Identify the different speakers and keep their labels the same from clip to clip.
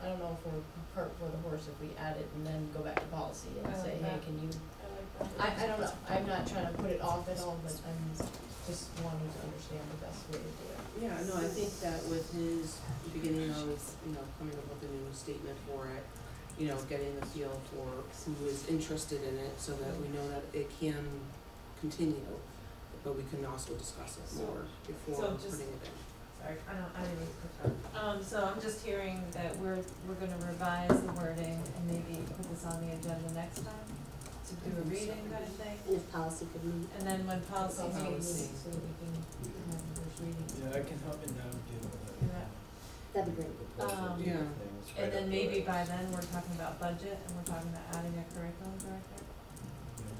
Speaker 1: for, cart for the horse if we add it and then go back to policy and
Speaker 2: I
Speaker 1: say,
Speaker 2: like
Speaker 1: hey,
Speaker 2: that.
Speaker 1: can you?
Speaker 2: I like that.
Speaker 1: Oh, I, I don't know, I'm not trying to put it off at all, but I'm just wanting to understand the best way to do it.
Speaker 3: Yeah, no, I think that with his beginning of, you know, coming up with a new statement for it, you know, getting the feel for who is interested in it so that we know that it can continue, but we can also discuss it more before
Speaker 2: So just-
Speaker 3: putting it in.
Speaker 2: Sorry, I don't, I didn't mean to Um, so I'm just hearing that we're, we're gonna revise the wording and maybe put this on the agenda next time to do a reading kind of thing.
Speaker 3: If policy could meet.
Speaker 2: And then when policy
Speaker 1: Policy
Speaker 2: meets,
Speaker 1: meeting, So we can have the first reading.
Speaker 4: Yeah, I can help and navigate all that.
Speaker 2: Yeah.
Speaker 3: That'd
Speaker 2: Um,
Speaker 3: Yeah.
Speaker 2: and then maybe by then, we're talking about budget and we're talking about adding a curriculum director.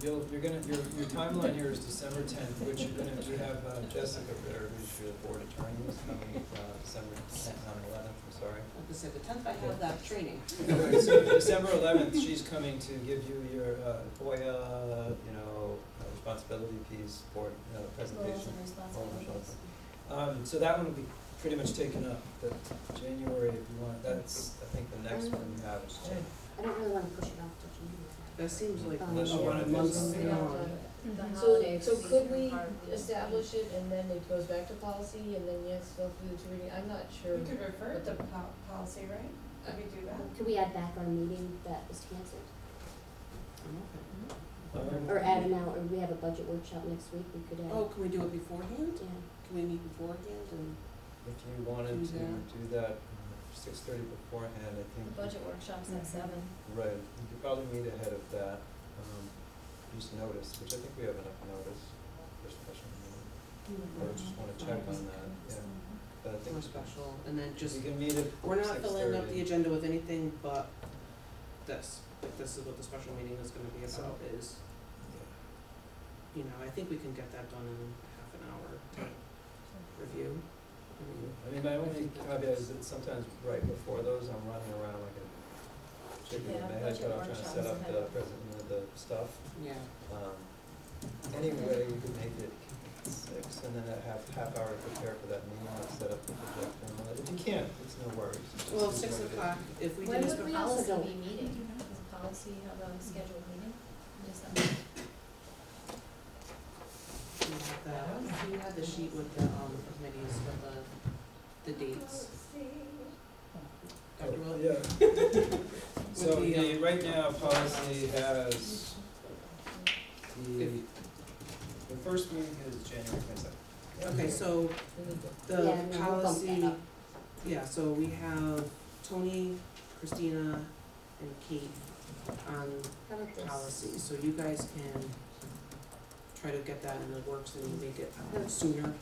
Speaker 4: You'll, you're gonna, your, your timeline here is December tenth, which you're gonna, we have uh, Jessica, or who's your board attorney, is coming, uh, December tenth, not eleventh, I'm sorry.
Speaker 3: Like I said, the tenth, I have that training.
Speaker 4: Right, so December eleventh, she's coming to give you your uh, FOIA, you know, uh, responsibility piece, board, you know, presentation. responsibilities. Um, so that one will be pretty much taken up, but January, if you want, that's, I think the
Speaker 2: Mm-hmm.
Speaker 4: next one you have is January.
Speaker 5: I don't really wanna push it off to January.
Speaker 3: That seems like a
Speaker 5: Unless
Speaker 4: you
Speaker 3: lot
Speaker 4: wanna
Speaker 3: of
Speaker 4: do
Speaker 3: months
Speaker 4: something
Speaker 3: beyond.
Speaker 1: So, so could we establish it and then it goes back to policy and then yes, go through the two reading, I'm not sure.
Speaker 2: We could refer to po- policy, right?
Speaker 6: Uh,
Speaker 2: Could we do that?
Speaker 5: Could we add back our meeting that was canceled?
Speaker 3: Okay.
Speaker 4: Um,
Speaker 5: Or add an hour, or we have a budget workshop next week, we could add,
Speaker 3: Oh, can we do it beforehand?
Speaker 5: yeah.
Speaker 3: Can we meet beforehand and?
Speaker 4: If you wanted
Speaker 3: Do
Speaker 4: to
Speaker 3: that.
Speaker 4: do that six thirty beforehand, I think.
Speaker 6: Budget workshops at seven.
Speaker 4: Right, you could probably meet ahead of that, um, just notice, which I think we have enough notice for special meeting. Or just wanna check on that, yeah, but I think.
Speaker 3: Or Mm-hmm. special, and then just
Speaker 4: You can meet at
Speaker 3: We're not filling up
Speaker 4: 6:30.
Speaker 3: the agenda with anything but this, like this is what the special meeting is gonna be about is,
Speaker 4: Yeah.
Speaker 3: you know, I think we can get that done in half an hour review. I mean,
Speaker 4: I mean, my only caveat is that sometimes right before those, I'm running around like a chicken with
Speaker 6: Yeah,
Speaker 4: my head
Speaker 6: budget
Speaker 4: cut off, trying to
Speaker 6: workshops
Speaker 4: set up
Speaker 6: ahead
Speaker 4: the
Speaker 6: of-
Speaker 4: present, you know, the stuff.
Speaker 3: Yeah,
Speaker 4: Um, anyway, we could make it six, and then a half, half hour to prepare for that meeting, and set up the projector and all that. If you can't, it's no worries. It's
Speaker 3: well,
Speaker 4: just
Speaker 3: six
Speaker 4: what it is.
Speaker 3: o'clock, if we do
Speaker 6: When
Speaker 3: this,
Speaker 6: would we
Speaker 5: also
Speaker 6: also
Speaker 5: don't-
Speaker 6: be meeting? Is policy have a scheduled meeting in December?
Speaker 3: we have the, we have the sheet with the, um, committees with the, the dates. Dr. Willett?
Speaker 4: Oh, Yeah. So
Speaker 3: With the,
Speaker 4: the,
Speaker 3: um,
Speaker 4: right now, policy has the,
Speaker 3: If-
Speaker 4: the first meeting is January twenty-second.
Speaker 3: Okay, so
Speaker 1: We need to-
Speaker 3: the
Speaker 5: Yeah, we will bump that
Speaker 3: policy,
Speaker 5: up.
Speaker 3: yeah, so we have Tony, Christina, and Kate on
Speaker 5: How about this?
Speaker 3: policy, so you guys can try to get that in the works and make it uh, sooner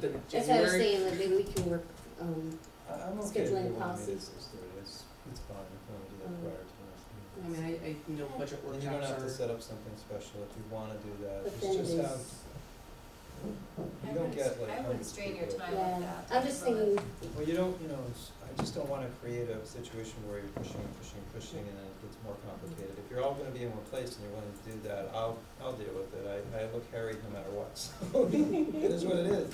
Speaker 3: than
Speaker 5: That's what I
Speaker 3: January.
Speaker 5: was saying, like maybe we can work, um,
Speaker 4: I, I'm okay if you
Speaker 5: Scheduling
Speaker 4: want to meet
Speaker 5: policy.
Speaker 4: at six thirty, it's, it's fine, if you want to do
Speaker 5: Um,
Speaker 4: that prior to next
Speaker 3: I mean,
Speaker 4: meeting.
Speaker 3: I, I know budget
Speaker 4: And you don't have to
Speaker 3: workshops are,
Speaker 4: set up something special if you wanna do that,
Speaker 5: but
Speaker 4: it's
Speaker 5: then it
Speaker 4: just
Speaker 5: is,
Speaker 4: have, you don't get like hundreds of people.
Speaker 6: I wouldn't strain your time with
Speaker 5: yeah,
Speaker 6: that.
Speaker 5: I'm just thinking,
Speaker 4: Well, you don't, you know, it's- I just don't wanna create a situation where you're pushing, pushing, pushing, and then it gets more complicated. If you're all gonna be in one place and you're willing to do that, I'll, I'll deal with it, I, I look harried no matter what, so it is what it is.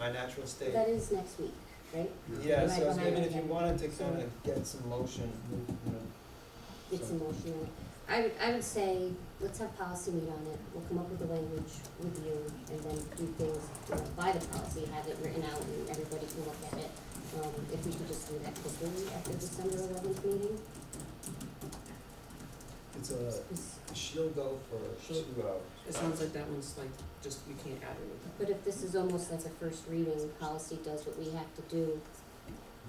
Speaker 4: My natural state.
Speaker 5: that is next week, right?
Speaker 4: Yeah,
Speaker 5: Right
Speaker 4: so it's- I
Speaker 5: behind
Speaker 4: mean,
Speaker 5: it,
Speaker 4: if you
Speaker 5: yeah.
Speaker 4: wanted to kinda get some motion, you know,
Speaker 5: It's
Speaker 4: So-
Speaker 5: emotional. I would, I would say, let's have policy meet on it, we'll come up with the language with you, and then do things, you know, by the policy, have it written out, and everybody can look at it. Um, if we could just do that quickly after December eleventh meeting,
Speaker 4: it's a,
Speaker 5: 'cause-
Speaker 4: she'll go for
Speaker 3: She'll-
Speaker 4: two hours.
Speaker 3: it sounds like that one's like, just, you can't add anything.
Speaker 5: but if this is almost like a first reading, policy does what we have to do.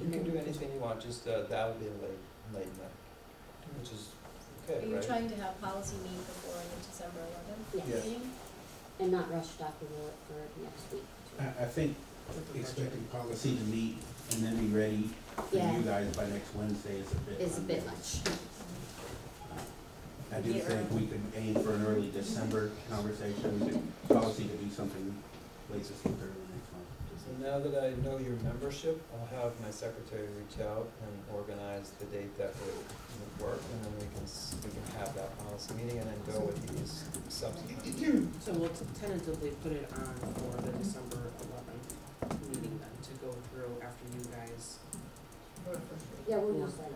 Speaker 4: You can do anything you want, just, uh, that'll be a late, late night, which is
Speaker 6: Are
Speaker 4: okay, right?
Speaker 6: you trying to have policy meet before the December eleventh
Speaker 4: Yeah.
Speaker 6: meeting?
Speaker 5: And not rush Dr. Willett for next week.
Speaker 7: I, I think
Speaker 3: with the budget.
Speaker 7: expecting policy to meet and then be ready for
Speaker 5: Yeah.
Speaker 7: you guys by next Wednesday is a bit.
Speaker 5: It's a bit
Speaker 7: unrealistic.
Speaker 5: much.
Speaker 7: I do
Speaker 6: Yeah.
Speaker 7: think we could aim for an early December conversation, we could, policy to do something latest in early next month.
Speaker 4: So now that I know your membership, I'll have my secretary reach out and organize the date that would work, and then we can, s- we can have that policy meeting and then go with these subsequent.
Speaker 3: So we'll tentatively put it on for the December eleventh meeting then, to go through after you guys
Speaker 1: for the first reading.
Speaker 5: Yeah, we're not that.